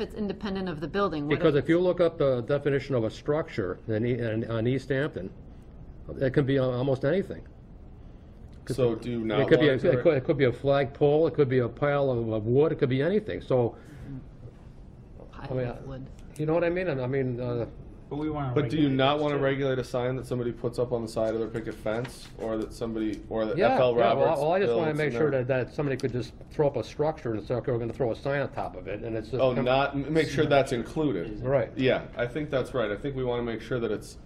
If it's independent of the building, what? Because if you look up the definition of a structure in, E- in, on East Hampton, it can be al- almost anything. So do you It not could be, a- want to it could, it could be a flagpole, it could be a pile of, of wood, it could be anything, so, Pile mean, of wood. you know what I mean? And I mean, uh, But we want to. But do you not want to regulate a sign that somebody puts up on the side of their picket fence, or that somebody, or that yeah, yeah, FL Roberts? well, well, I just wanna builds make and sure everything? that, that somebody could just throw up a structure and say, okay, we're gonna throw a sign on top of it, and it's just. Oh, come- not, m- make sure that's included. Right. Yeah, I think that's right. I think we want to make sure that it's,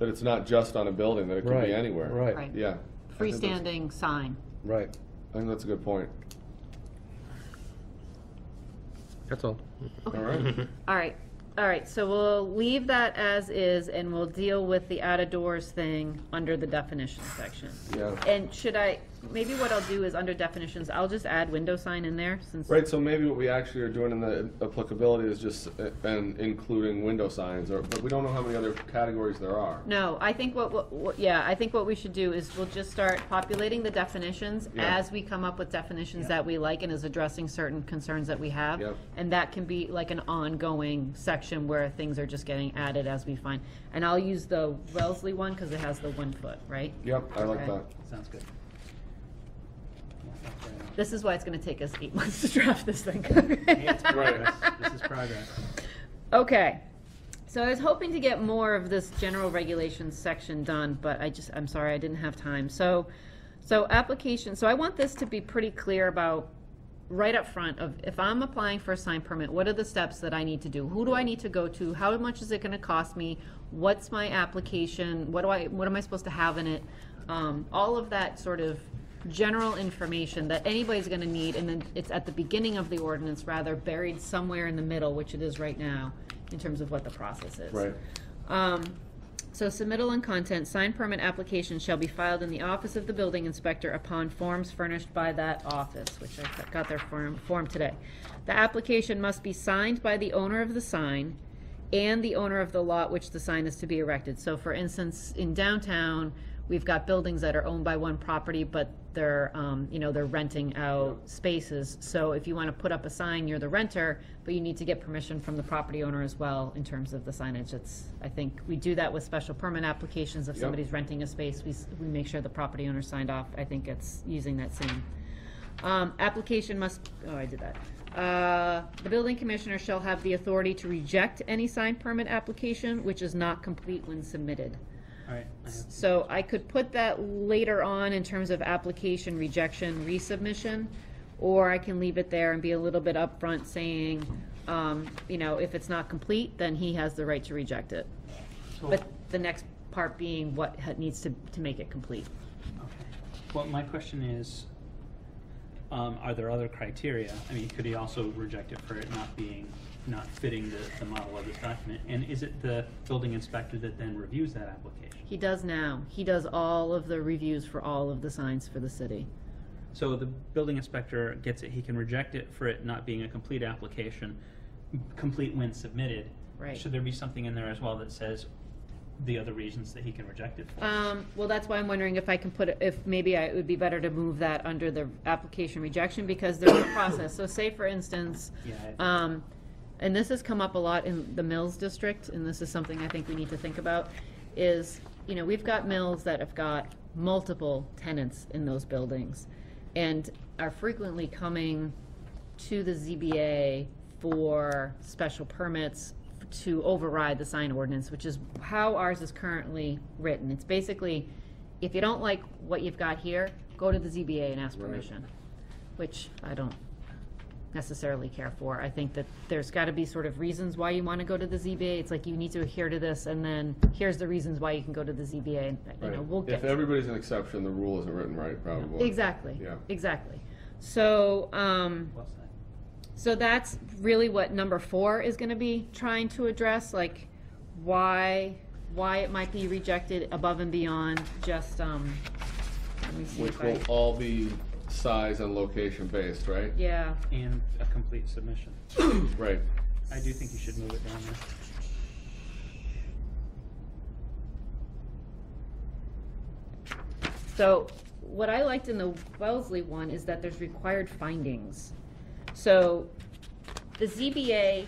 that it's not just on a building, that it could Right, be anywhere. Right, Right. Yeah. I think that's- Freestanding sign. right, I think that's a good point. that's all. All right. All right, all right, so we'll leave that as is and we'll deal with the out of doors thing under the definition section. Yeah. And should I, maybe what I'll do is under definitions, I'll just add window sign in there since. Right, so maybe what we actually are doing in the applicability is just, uh, and including window signs, or, but we don't know how many other categories there are. No, I think what- what, what, yeah, I think what we should do is we'll just start populating the definitions Yeah. as we come up with definitions that we like and is addressing certain concerns that we have. Yep. And that can be like an ongoing section where things are just getting added as we find. And I'll use the Wellesley one because it has the one foot, right? Yep, I like Okay. that. Sounds good. Yeah, that's right on. This is why it's gonna take us eight months to draft this thing. Hey, it's progress. This is progress. Okay, so I was hoping to get more of this general regulations section done, but I just, I'm sorry, I didn't have time. So, so application, so I want this to be pretty clear about, right up front of, if I'm applying for a sign permit, what are the steps that I need to do? Who do I need to go to? How much is it gonna cost me? What's my application? What do I, what am I supposed to have in it? Um, all of that sort of general information that anybody's gonna need, and then it's at the beginning of the ordinance, rather buried somewhere in the middle, which it is right now, in terms of what the process is. Right. Um, so submittal and content, sign permit application shall be filed in the office of the building inspector upon forms furnished by that office, which I got their form, form today. The application must be signed by the owner of the sign and the owner of the lot which the sign is to be erected. So for instance, in downtown, we've got buildings that are owned by one property, but they're, um, you know, they're renting out spaces. So if you want to put up a sign, you're the renter, but you need to get permission from the property owner as well in terms of the signage. It's, I think, we do that with special permit applications. If Yep. somebody's renting a space, we, s- we make sure the property owner signed off. I think it's using that same. Um, application must, oh, I did that. Uh, the building commissioner shall have the authority to reject any sign permit application which is not complete when submitted. All right, I have So I could put that later on in terms of application, rejection, resubmission, or I can leave it there and be a little bit upfront saying, um, you know, if it's not complete, then he has the right to reject it. So- But the next part being what ha- needs to, to make it complete. Okay. Well, my question is, um, are there other criteria? I mean, could he also reject it for it not being, not fitting the, the model of this document? And is it the building inspector that then reviews that application? He does now. He does all of the reviews for all of the signs for the city. So the building inspector gets it, he can reject it for it not being a complete application, complete when submitted. Right. Should there be something in there as well that says the other reasons that he can reject it for? Um, well, that's why I'm wondering if I can put, it- if maybe I, it would be better to move that under the application rejection, because there's a process. So say, for instance, Yeah, I- um, and this has come up a lot in the Mills district, and this is something I think we need to think about, is, you know, we've got mills that have got multiple tenants in those buildings and are frequently coming to the ZBA for special permits to override the sign ordinance, which is how ours is currently written. It's basically, if you don't like what you've got here, go to the ZBA and ask Right. permission, which I don't necessarily care for. I think that there's got to be sort of reasons why you want to go to the ZBA. It's like you need to adhere to this, and then here's the reasons why you can go to the ZBA, and, you know, Right. we'll get. If everybody's an exception, the rule isn't written right, probably. Exactly, Yeah. exactly. So, um, What's that? so that's really what number four is gonna be trying to address, like why, why it might be rejected above and beyond just, um, let me see Which if will I, all be size and location based, right? yeah. And a complete submission. Right. I do think you should move it down there. So what I liked in the Wellesley one is that there's required findings. So the ZBA